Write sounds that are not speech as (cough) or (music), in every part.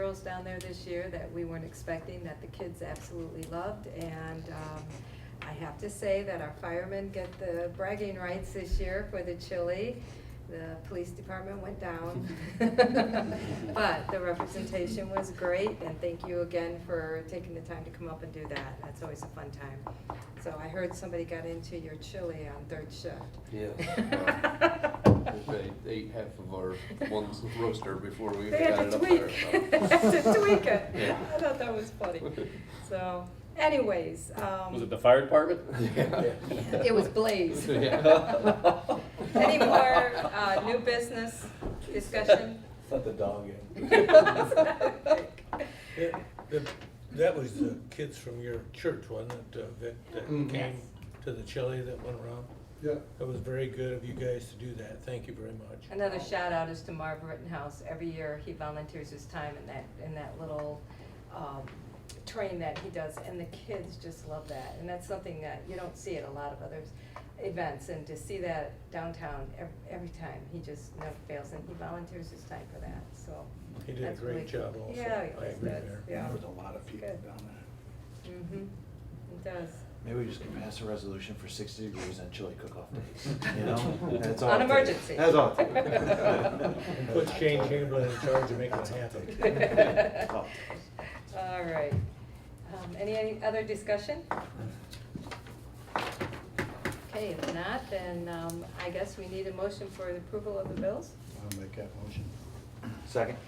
meals down there this year that we weren't expecting, that the kids absolutely loved. And um, I have to say that our firemen get the bragging rights this year for the chili. The police department went down. But the representation was great, and thank you again for taking the time to come up and do that. That's always a fun time. So I heard somebody got into your chili on third shift. (laughs) Yeah. They ate half of our one roaster before we They got had it to up tweak, (laughs) there. had to tweak it. (laughs) Yeah. I thought that was (laughs) funny. So anyways, um. Was it the fire department? Yeah. (laughs) It was Blaze. Yeah. (laughs) Any more, uh, new business discussion? (laughs) Let the dog in. That- that- That was the kids from your church, wasn't it, uh, Vic, that Mhm. came to the chili that went around? Yeah. That was very good of you guys to do that, thank you very much. Another shout out is to Marv Rittenhouse. Every year, he volunteers his time in that, in that little, um, train that he does, and the kids just love that. And that's something that you don't see at a lot of other events, and to see that downtown ev- every time, he just never fails, and he volunteers his time for that, so. He did a that's great really- job also. Yeah, I he does, agree that's- there. yeah. There was a lot of people down Good. there. Mm-hmm, it does. Maybe we just can pass a resolution for sixty degrees on chili cook-off (laughs) days, you know? That's all On it takes. emergency. That's all. it takes. And (laughs) put Shane Chamberlain in charge of making it happen. (laughs) Oh. All right. Um, Any, any other discussion? Okay, if not, then um, I guess we need a motion for the approval of the bills. I'll make that motion. Second?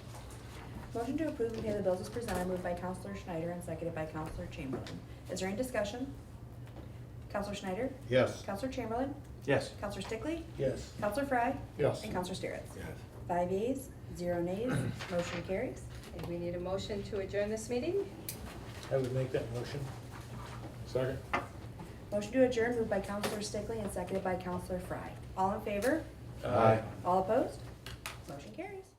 Motion to approve and pay the bills is presented, moved by Counselor Schneider and seconded by Counselor Chamberlain. Is there any discussion? Counselor Schneider? Yes. Counselor Chamberlain? Yes. Counselor Stickley? Yes. Counselor Fry? Yes. And Counselor Steeritz? Yes. Five yeas, zero nays, motion carries. And we need a motion to adjourn this meeting. I would make that motion. Second. Motion to adjourn, moved by Counselor Stickley and seconded by Counselor Fry. All in favor? Aye. All opposed? Motion carries.